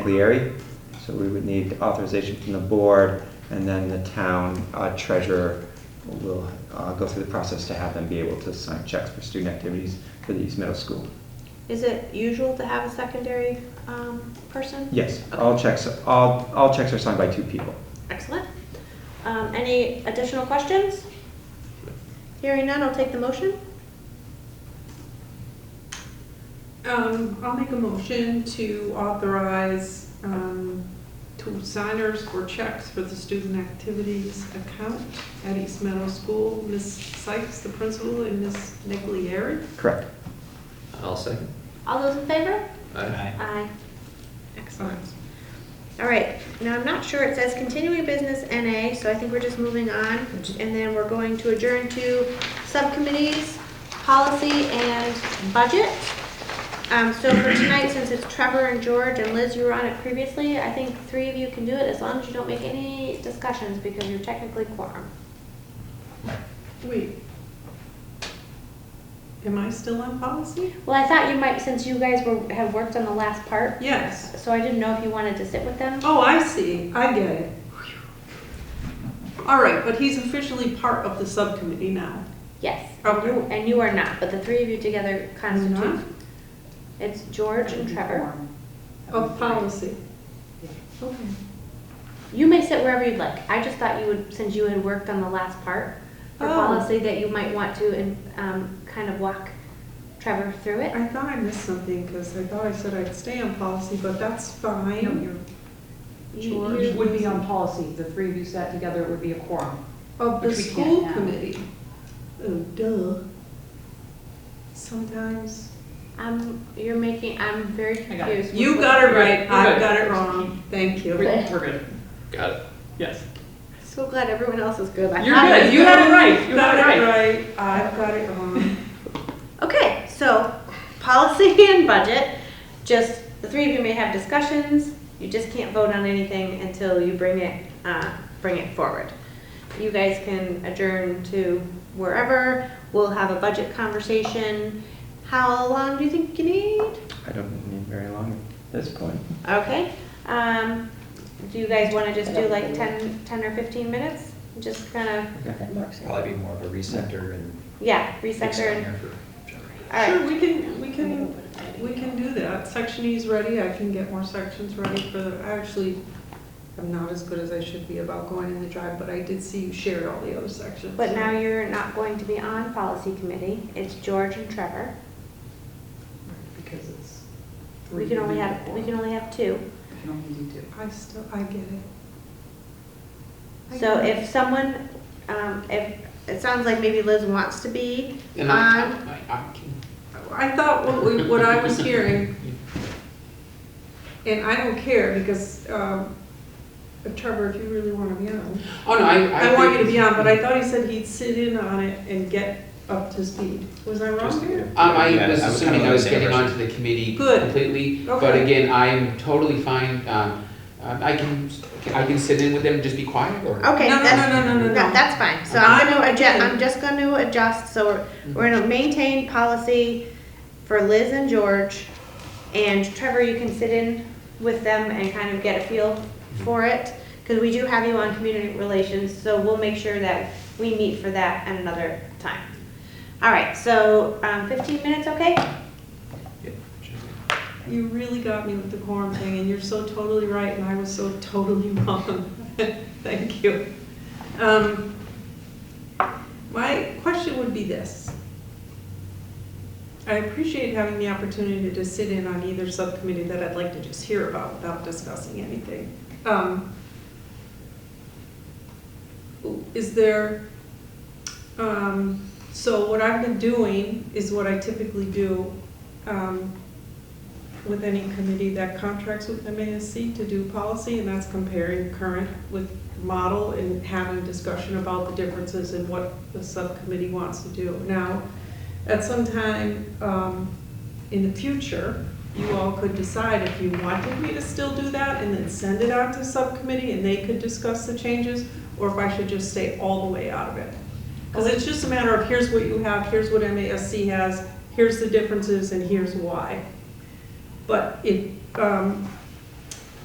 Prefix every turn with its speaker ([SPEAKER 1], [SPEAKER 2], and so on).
[SPEAKER 1] Leary. So we would need authorization from the board, and then the town uh, treasurer will uh, go through the process to have them be able to sign checks for student activities for the East Middle School.
[SPEAKER 2] Is it usual to have a secondary um, person?
[SPEAKER 1] Yes, all checks, all, all checks are signed by two people.
[SPEAKER 2] Excellent. Um, Any additional questions? Hearing none, I'll take the motion.
[SPEAKER 3] Um, I'll make a motion to authorize, um, two signers for checks for the student activities account at East Meadow School, Ms. Sykes, the principal, and Ms. Niglieri.
[SPEAKER 1] Correct.
[SPEAKER 4] I'll second.
[SPEAKER 2] All those in favor?
[SPEAKER 4] Aye.
[SPEAKER 2] Aye. Excellent. All right, now I'm not sure, it says continuing business NA, so I think we're just moving on. And then we're going to adjourn to subcommittees, policy and budget. Um, so for tonight, since it's Trevor and George and Liz, you were on it previously, I think three of you can do it as long as you don't make any discussions because you're technically quorum.
[SPEAKER 3] Wait. Am I still on policy?
[SPEAKER 2] Well, I thought you might, since you guys were, had worked on the last part,
[SPEAKER 3] Yes.
[SPEAKER 2] so I didn't know if you wanted to sit with them.
[SPEAKER 3] Oh, I see. I get it. All right, but he's officially part of the subcommittee now.
[SPEAKER 2] Yes.
[SPEAKER 3] Okay.
[SPEAKER 2] And you are not, but the three of you together
[SPEAKER 3] I'm
[SPEAKER 2] constitute.
[SPEAKER 3] not?
[SPEAKER 5] Mm-hmm.
[SPEAKER 2] It's George and Trevor.
[SPEAKER 5] Oh,
[SPEAKER 3] Of policy. Okay.
[SPEAKER 2] You may sit wherever you'd like. I just thought you would, since you had worked on the last part for
[SPEAKER 3] Oh.
[SPEAKER 2] policy, that you might want to and, um, kind of walk Trevor through it.
[SPEAKER 3] I thought I missed something because I thought I said I'd stay on policy, but that's fine.
[SPEAKER 2] You-
[SPEAKER 5] George
[SPEAKER 2] you-
[SPEAKER 5] would be on policy, the three of you sat together, it would be a quorum.
[SPEAKER 3] Of the
[SPEAKER 5] Which we can't
[SPEAKER 3] school
[SPEAKER 5] now.
[SPEAKER 3] committee. Oh, duh. Sometimes.
[SPEAKER 2] I'm, Um, you're making, I'm very
[SPEAKER 5] I got it.
[SPEAKER 2] confused.
[SPEAKER 3] You got it right,
[SPEAKER 5] You're
[SPEAKER 3] I
[SPEAKER 5] good.
[SPEAKER 3] got it wrong. Thank you.
[SPEAKER 2] Right.
[SPEAKER 5] We're good.
[SPEAKER 4] Got it.
[SPEAKER 5] Yes.
[SPEAKER 2] So glad everyone else is good. I
[SPEAKER 5] You're
[SPEAKER 2] thought it
[SPEAKER 5] good,
[SPEAKER 2] was
[SPEAKER 5] you had it right, you
[SPEAKER 3] Got
[SPEAKER 5] had
[SPEAKER 3] it
[SPEAKER 5] it right.
[SPEAKER 3] right, I've got it wrong.
[SPEAKER 2] Okay, so policy and budget, just, the three of you may have discussions, you just can't vote on anything until you bring it, uh, bring it forward. You guys can adjourn to wherever, we'll have a budget conversation. How long do you think you need?
[SPEAKER 1] I don't need very long at this point.
[SPEAKER 2] Okay, um, do you guys wanna just do like 10, 10 or fifteen minutes? Just kinda,
[SPEAKER 1] Okay.
[SPEAKER 4] Probably be more of a recenter and.
[SPEAKER 2] yeah, recenter and,
[SPEAKER 4] explainer for Trevor.
[SPEAKER 2] alright.
[SPEAKER 3] Sure, we can, we can, we can do that. Section E's ready, I can get more sections ready for, the- I actually am not as good as I should be about going in the drive, but I did see you shared all the other sections.
[SPEAKER 2] But now you're not going to be on policy committee, it's George and Trevor.
[SPEAKER 5] Because it's three.
[SPEAKER 2] We can only
[SPEAKER 5] you
[SPEAKER 2] have, we can only have two.
[SPEAKER 5] can only do two.
[SPEAKER 3] I still, I get it. I
[SPEAKER 2] So
[SPEAKER 3] get it.
[SPEAKER 2] if someone, um, if, it sounds like maybe Liz wants to be
[SPEAKER 4] And I-
[SPEAKER 2] on,
[SPEAKER 4] I- I can-
[SPEAKER 3] I thought what we, what I was hearing, and I don't care, because, um, Trevor, if you really wanna be on,
[SPEAKER 4] Oh, no, I.
[SPEAKER 3] I want you to be on, but I
[SPEAKER 4] think-
[SPEAKER 3] thought he said he'd sit in on it and get up to speed. Was I wrong here?
[SPEAKER 4] Um, I
[SPEAKER 6] Yeah,
[SPEAKER 4] was
[SPEAKER 6] I was
[SPEAKER 4] assuming
[SPEAKER 6] kinda
[SPEAKER 4] I was
[SPEAKER 6] the same
[SPEAKER 4] getting
[SPEAKER 6] person.
[SPEAKER 4] onto the committee
[SPEAKER 3] Good.
[SPEAKER 4] completely, but
[SPEAKER 3] Okay.
[SPEAKER 4] again, I'm totally fine, um, um, I can, I can sit in with them, and just be quiet, or?
[SPEAKER 2] okay,
[SPEAKER 3] No, no,
[SPEAKER 2] that's,
[SPEAKER 3] no, no, no,
[SPEAKER 2] no,
[SPEAKER 3] no, no.
[SPEAKER 2] that's fine. So I'm
[SPEAKER 3] I'm
[SPEAKER 2] gonna adjust,
[SPEAKER 3] okay.
[SPEAKER 2] I'm just gonna adjust, so we're, we're gonna maintain policy for Liz and George. And Trevor, you can sit in with them and kind of get a feel for it, cause we do have you on community relations, so we'll make sure that we meet for that at another time. All right, so, um, fifteen minutes, okay?
[SPEAKER 4] Yeah, sure.
[SPEAKER 3] You really got me with the quorum thing, and you're so totally right, and I was so totally wrong. Thank you. Um, My question would be this. I appreciate having the opportunity to sit in on either subcommittee that I'd like to just hear about without discussing anything. Um, Is there, um, so what I've been doing is what I typically do. um, with any committee that contracts with MASC to do policy, and that's comparing current with model and having a discussion about the differences and what the subcommittee wants to do. Now, at some time um, in the future, you all could decide if you wanted me to still do that and then send it out to subcommittee and they could discuss the changes, or if I should just stay all the way out of it. Because it's just a matter of here's what you have, here's what MASC has, here's the differences, and here's why. But if, um,